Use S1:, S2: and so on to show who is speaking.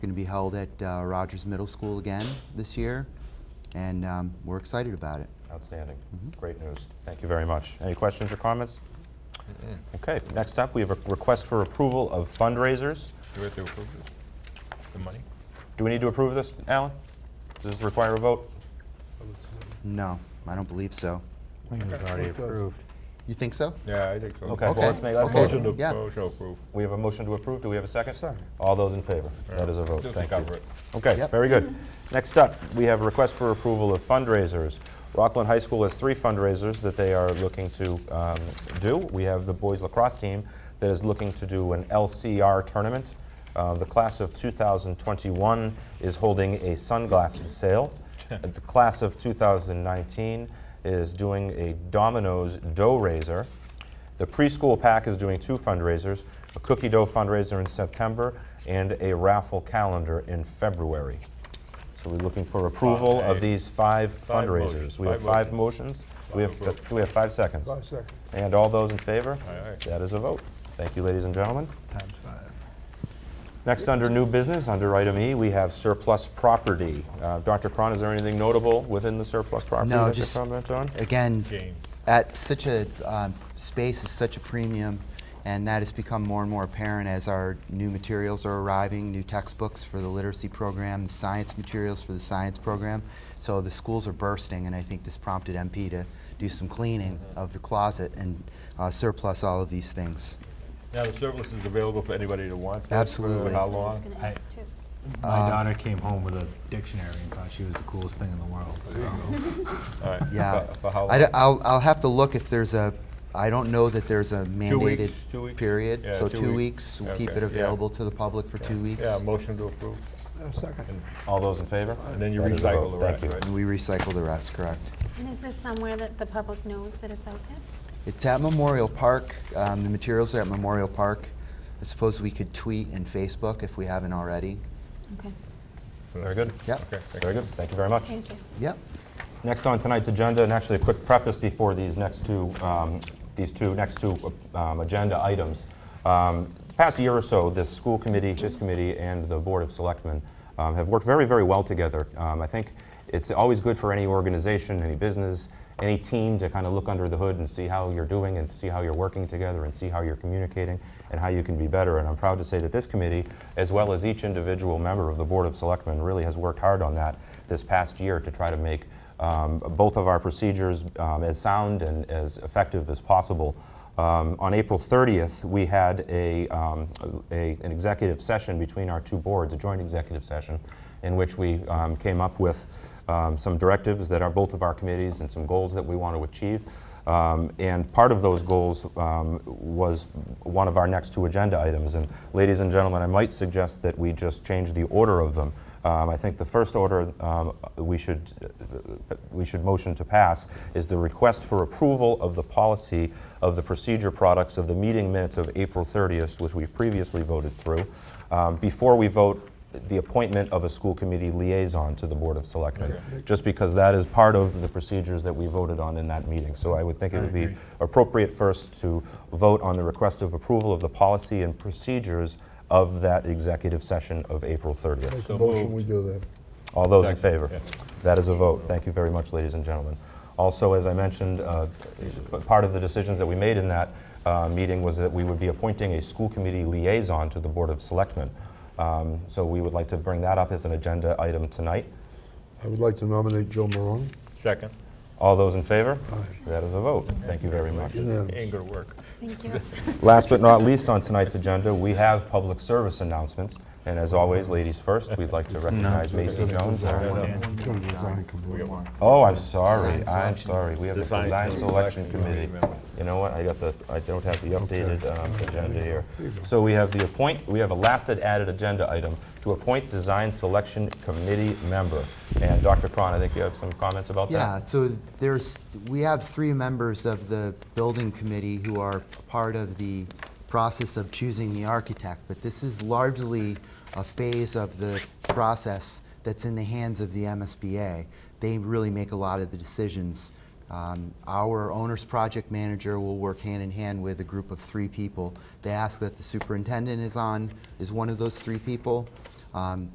S1: Going to be held at uh, Rogers Middle School again this year, and um, we're excited about it.
S2: Outstanding. Great news. Thank you very much. Any questions or comments? Okay, next up, we have a request for approval of fundraisers.
S3: Do we have to approve it? The money?
S2: Do we need to approve this, Alan? Does this require a vote?
S1: No, I don't believe so.
S4: I think it was already approved.
S1: You think so?
S3: Yeah, I think so.
S2: Okay, well, let's make, let's
S1: Okay.
S2: make,
S3: Motion to,
S1: Yeah.
S3: motion to approve.
S2: we have a motion to approve. Do we have a second? All those in favor? That is a vote.
S3: Just
S2: Thank
S3: cover
S2: you.
S3: it.
S2: Okay,
S1: Yep.
S2: very good. Next up, we have a request for approval of fundraisers. Rockland High School has three fundraisers that they are looking to um, do. We have the boys lacrosse team that is looking to do an LCR tournament. Uh, The class of 2021 is holding a sunglasses sale. The class of 2019 is doing a Domino's dough raiser. The preschool pack is doing two fundraisers, a cookie dough fundraiser in September and a raffle calendar in February. So we're looking for approval of
S3: Five.
S2: these five
S3: Five
S2: fundraisers.
S3: motions.
S2: We have
S3: Five
S2: five motions. We have,
S3: Five approved.
S2: do we have five seconds?
S5: Five seconds.
S2: And all those in favor?
S3: Aye, aye.
S2: That is a vote. Thank you, ladies and gentlemen.
S4: Times five.
S2: Next, under new business, under item E, we have surplus property. Uh, Dr. Cron, is there anything notable within the surplus property
S1: No,
S2: that you
S1: just-
S2: comment on?
S1: Again,
S3: James.
S1: at such a um, space is such a premium, and that has become more and more apparent as our new materials are arriving, new textbooks for the literacy program, the science materials for the science program. So the schools are bursting, and I think this prompted MP to do some cleaning of the closet and uh, surplus all of these things.
S3: Now, the service is available for anybody that wants it? For
S1: Absolutely.
S3: How
S6: I was
S3: long?
S6: gonna ask too.
S4: My daughter came home with a dictionary and thought she was the coolest thing in the world. So
S3: All right.
S1: Yeah,
S3: For- For how
S1: I
S3: long?
S1: d- I'll, I'll have to look if there's a, I don't know that there's a mandated
S3: weeks, two weeks?
S1: period.
S3: Yeah,
S1: So
S3: two
S1: two
S3: weeks.
S1: weeks, we'll keep
S3: Okay,
S1: it
S3: yeah.
S1: available to the public for two weeks.
S3: Yeah, motion to approve.
S5: A second.
S2: All those in favor?
S3: And then you
S2: That is a vote.
S3: recycle the
S2: Thank
S3: rest,
S2: you.
S3: right?
S1: And we recycle the rest, correct?
S6: And is this somewhere that the public knows that it's out there?
S1: It's at Memorial Park. Um, the materials are at Memorial Park. I suppose we could tweet and Facebook if we haven't already.
S6: Okay,
S2: Very good.
S1: Yep.
S3: Okay, thank
S2: Very good. Thank you very much.
S6: thank you.
S1: Yep.
S2: Next on tonight's agenda, and actually a quick preface before these next two, um, these two, next two um, agenda items. Um, the Past year or so, the school committee, this committee, and the Board of Selectmen um, have worked very, very well together. Um, I think it's always good for any organization, any business, any team to kind of look under the hood and see how you're doing and see how you're working together and see how you're communicating and how you can be better. And I'm proud to say that this committee, as well as each individual member of the Board of Selectmen, really has worked hard on that this past year to try to make um, both of our procedures um, as sound and as effective as possible. Um, on April 30th, we had a, um, a- an executive session between our two boards, a joint executive session, in which we um, came up with um, some directives that are both of our committees and some goals that we want to achieve. Um, and part of those goals um, was one of our next two agenda items. And ladies and gentlemen, I might suggest that we just change the order of them. Um, I think the first order um, we should uh, we should motion to pass is the request for approval of the policy of the procedure products of the meeting minutes of April 30th, which we previously voted through. Um, before we vote the appointment of a school committee liaison to the Board of Selectmen, just because that is part of the procedures that we voted on in that meeting. So I would think it would be appropriate first to vote on the request of approval of the policy and procedures of that executive session of April 30th.
S5: Make a motion, we do that.
S2: All those in
S3: Second,
S2: favor?
S3: yeah.
S2: That is a vote. Thank you very much, ladies and gentlemen. Also, as I mentioned, uh, part of the decisions that we made in that uh, meeting was that we would be appointing a school committee liaison to the Board of Selectmen. Um, So we would like to bring that up as an agenda item tonight.
S5: I would like to nominate Joe Marone.
S3: Second.
S2: All those in favor? That is a vote. Thank you very much.
S5: Unanimous.
S3: Ain't gonna work.
S6: Thank you.
S2: Last but not least on tonight's agenda, we have public service announcements. And as always, ladies first, we'd like to recognize Macy Jones. our-
S5: Gonna design complete.
S2: Oh, I'm sorry,
S1: Design
S2: I'm
S1: selection.
S2: sorry, we have the
S3: Design
S2: design selection
S3: selection
S2: committee.
S3: committee.
S2: You know what, I got the, I don't have the updated um, agenda here. So we have the appoint, we have a last added agenda item to appoint design selection committee member. And Dr. Cron, I think you have some comments about that?
S1: Yeah, so there's, we have three members of the building committee who are part of the process of choosing the architect, but this is largely a phase of the process that's in the hands of the MSBA. They really make a lot of the decisions. Um, Our owner's project manager will work hand in hand with a group of three people. They ask that the superintendent is on, is one of those three people. Um,